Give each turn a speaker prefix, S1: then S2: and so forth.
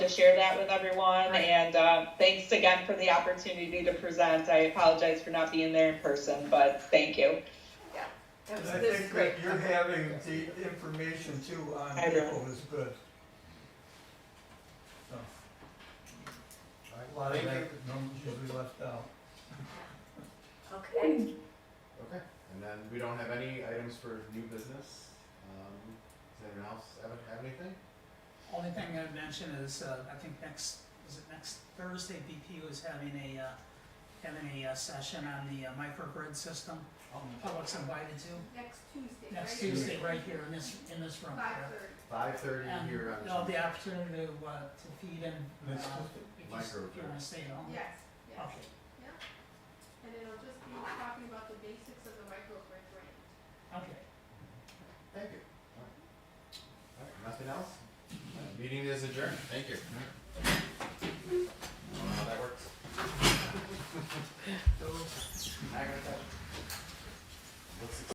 S1: share that with everyone. And uh, thanks again for the opportunity to present. I apologize for not being there in person, but thank you.
S2: That
S3: And
S2: was-
S3: I
S2: this is
S3: think
S2: great.
S3: that you're having the information too on
S1: I know.
S3: people is good. So, A lot of
S4: Thank
S3: that
S4: you.
S3: numbers usually left out.
S2: Okay,
S4: Okay, and then we don't have any items for new business. Um, does anyone else have, have anything?
S5: Only thing I'd mention is, uh, I think next, is it next Thursday, BPU is having a, uh, having a uh, session on the uh, microgrid system. Public's invited to,
S6: Next Tuesday,
S5: next
S6: right?
S5: Tuesday, right here in this, in this room.
S6: Five thirty.
S4: Five thirty
S5: And
S4: here on.
S5: There'll be
S4: Tuesday.
S5: opportunity to, uh, to feed in, uh,
S3: Next
S5: if you s- if you
S4: Microgrid.
S5: wanna stay at home.
S6: Yes, yes.
S5: Okay.
S6: And it'll just be talking about the basics of the microgrid grant.
S5: Okay.
S4: Thank you. All right. All right, nothing else? Uh, Meeting is adjourned, thank you.